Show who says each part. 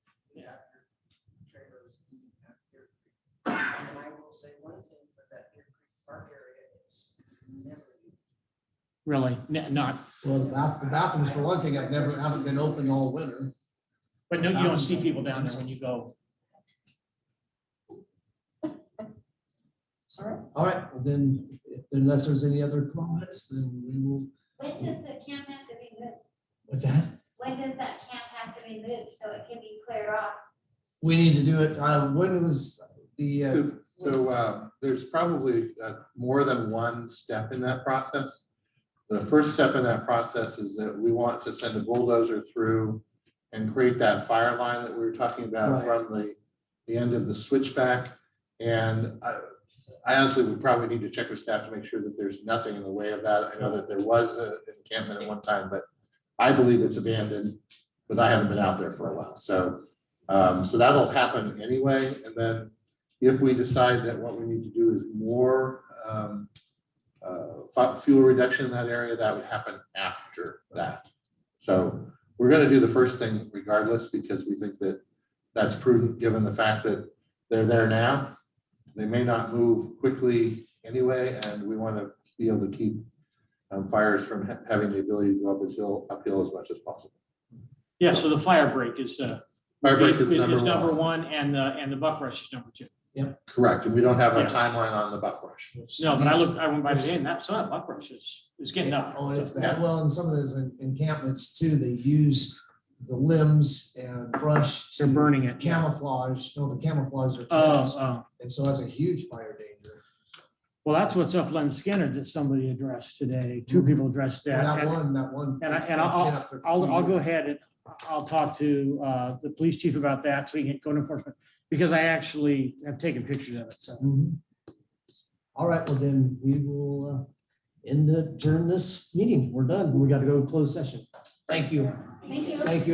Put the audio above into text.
Speaker 1: will say one thing for that Deer Creek Park area is never used.
Speaker 2: really, n- not,
Speaker 3: Well, the bath- the bathrooms for one thing, I've never, haven't been open all winter.
Speaker 2: but no, you don't see people down there when you go.
Speaker 1: Sorry?
Speaker 3: All right, well then, if- unless there's any other comments, then we will.
Speaker 4: When does the camp have to be moved?
Speaker 3: What's that?
Speaker 4: When does that camp have to be moved so it can be cleared off?
Speaker 3: We need to do it, uh, when was the, uh,
Speaker 5: So, so uh, there's probably uh, more than one step in that process. The first step in that process is that we want to send a bulldozer through and create that fire line that we were talking about
Speaker 3: Right.
Speaker 5: from the, the end of the switchback. And I I honestly would probably need to check with staff to make sure that there's nothing in the way of that. I know that there was an encampment at one time, but I believe it's abandoned, but I haven't been out there for a while. So, um, so that'll happen anyway. And then if we decide that what we need to do is more um, uh, fu- fuel reduction in that area, that would happen after that. So we're going to do the first thing regardless because we think that that's prudent, given the fact that they're there now. They may not move quickly anyway, and we want to be able to keep um, fires from ha- having the ability to go up as hill, uphill as much as possible.
Speaker 2: Yeah, so the fire break is, uh,
Speaker 5: Fire break is number
Speaker 2: is number
Speaker 5: one.
Speaker 2: one, and the, and the buck rush is number two.
Speaker 5: Correct, and we don't have a
Speaker 2: Yes.
Speaker 5: timeline on the buck rush.
Speaker 2: No, but I looked, I went by today, and that's not buck rush, it's, it's getting up.
Speaker 3: Oh, and it's bad. Well, and some of those en- encampments too, they use the limbs and brush
Speaker 2: They're
Speaker 3: to
Speaker 2: burning it.
Speaker 3: camouflage, no, the camouflage their
Speaker 2: Oh,
Speaker 3: tents.
Speaker 2: oh,
Speaker 3: And so that's a huge fire danger.
Speaker 2: well, that's what's up on Skinner that somebody addressed today, two people addressed
Speaker 3: Well,
Speaker 2: Mm-hmm. that.
Speaker 3: That
Speaker 2: and-
Speaker 3: one, that one.
Speaker 2: and I- and
Speaker 3: that's
Speaker 2: I'll-
Speaker 3: been up there for
Speaker 2: I'll,
Speaker 3: two
Speaker 2: I'll go
Speaker 3: years.
Speaker 2: ahead and I'll talk to uh, the police chief about that so he can get code enforcement, because I actually have taken pictures of it, so.
Speaker 3: Mhm. All right, well then, we will uh, end, adjourn this meeting. We're done. We got to go to closed session. Thank you.
Speaker 4: Thank you.
Speaker 3: Thank you.